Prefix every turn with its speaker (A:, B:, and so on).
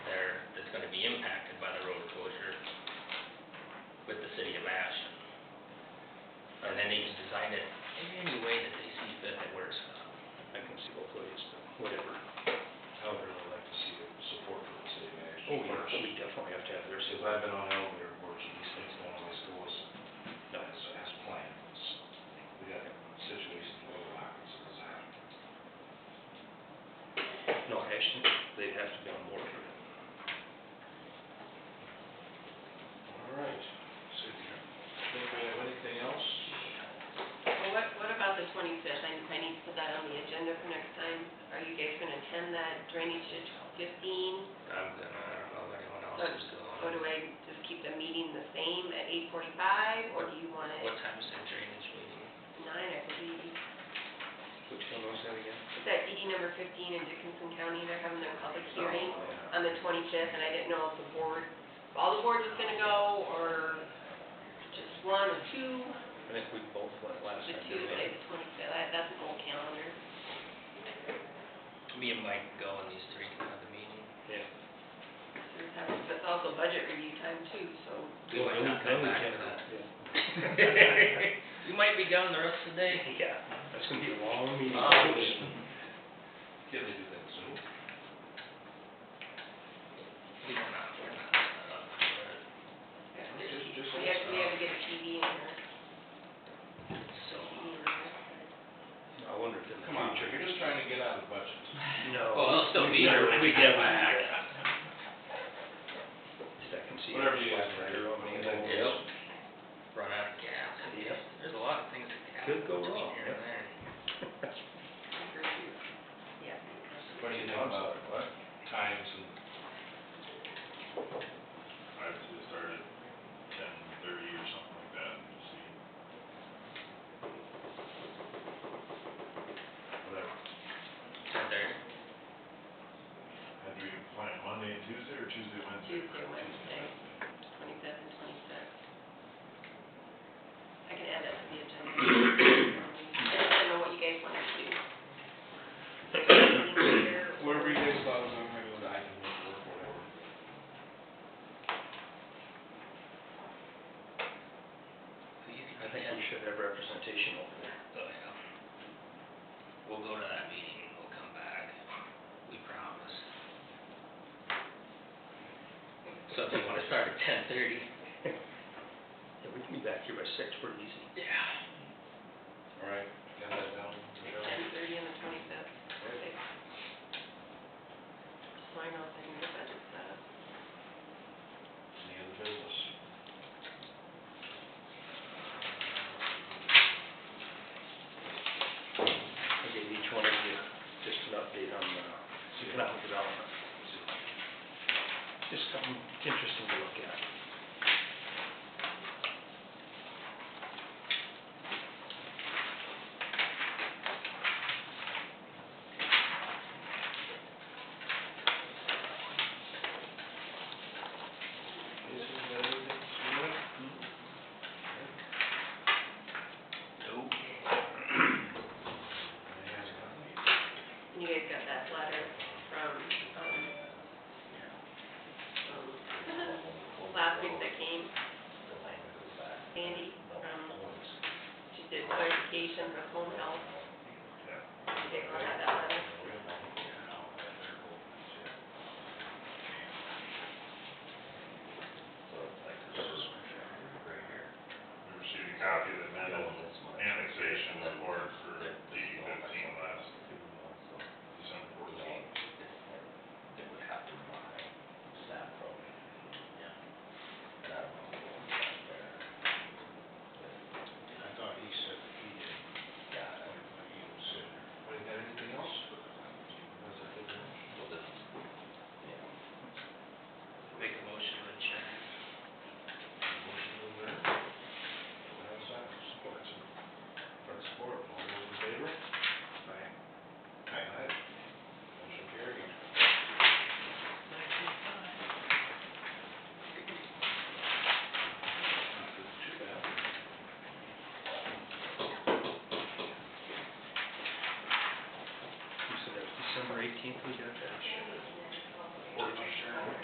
A: that, in any way that they see fit that works.
B: I can see both ways, whatever.
C: I would really like to see support for the city manager.
B: Oh, yeah, we definitely have to have their
C: Because
B: support.
C: I've been on elevator boards, and these things don't always go as, not as, as planned. It's- We got situations where it happens, it's happened.
B: No, actually, they have to be on board for it.
C: All right, city, anybody have anything else?
D: Well, what, what about the twenty-fifth? I, I need to put that on the agenda for next time. Are you guys gonna attend that drainage ditch fifteen?
A: I'm gonna, I don't know if anyone else is going.
D: Or do I just keep the meeting the same at eight forty-five, or do you want it
A: What time is their drainage meeting?
D: at nine, I believe?
B: Which one was that again?
D: Is that DD number fifteen in Dickinson County? They're having their public hearing
C: Oh, Yeah.
D: on the twenty-fifth, and I didn't know if the board, if all the board was gonna go, or just one or two.
B: I think we both went last
D: The
B: time.
D: two,
B: didn't we?
D: like the twenty-fifth, that's an old calendar.
A: Me and Mike go and these three can have the meeting.
B: Yeah.
D: That's also budget review time too, so.
A: We might not
B: Then
A: come
B: we
A: back
B: can-
A: to that.
B: yeah.
A: You might be gone the rest of the day.
B: Yeah, that's gonna be a long meeting.
A: Um,
C: Can they do that soon?
A: We don't know, we're not, uh, but-
C: Just- just
D: We have, we have to get a TV in
A: uh,
D: there.
A: so,
B: I wonder if in the future.
C: Come on, Chuck, you're just trying to get out of the budget.
B: No.
A: Well, they'll still
B: we
A: be here
B: never-
A: when
B: We
A: you get
B: never do
A: back.
B: that. Second seat.
C: Whatever you guys are doing, I mean, that
A: Yep.
C: goes.
A: run out of gas.
B: Yep.
A: There's a lot of things that can happen
B: Could go
A: between
B: wrong,
A: here and there.
D: Yeah.
C: What do you think about times and?
E: I'd say start at ten thirty or something like that, and see.
C: Whatever.
A: Ten thirty.
E: And do you plan Monday and Tuesday, or Tuesday, Wednesday?
D: Tuesday, Wednesday, twenty-fifth and twenty-sixth. I can add that to the agenda. I just don't know what you guys want to do.
C: Whatever you guys thought was on my list, I can work, work whatever.
A: You can
B: I
A: do
B: think
A: that.
B: we should have representation over there.
A: Oh, yeah. We'll go to that meeting, we'll come back, we promise. So if you wanna start at ten thirty.
B: Yeah, we can be back here by six, we're easy.
A: Yeah.
C: All right, got that down, Michelle?
D: Ten-thirty on the twenty-fifth, perfect. So I know if I can get that set up.
C: Any other business?
B: I gave each one of you just an update on uh, economic development. Just something interesting to look at.
C: Is there anything, Sabrina?
A: Nope.
C: Any hands up?
D: And you guys got that letter from, um, um, last week that came, Sandy, from, she did clarification for home health. You guys all have that letter?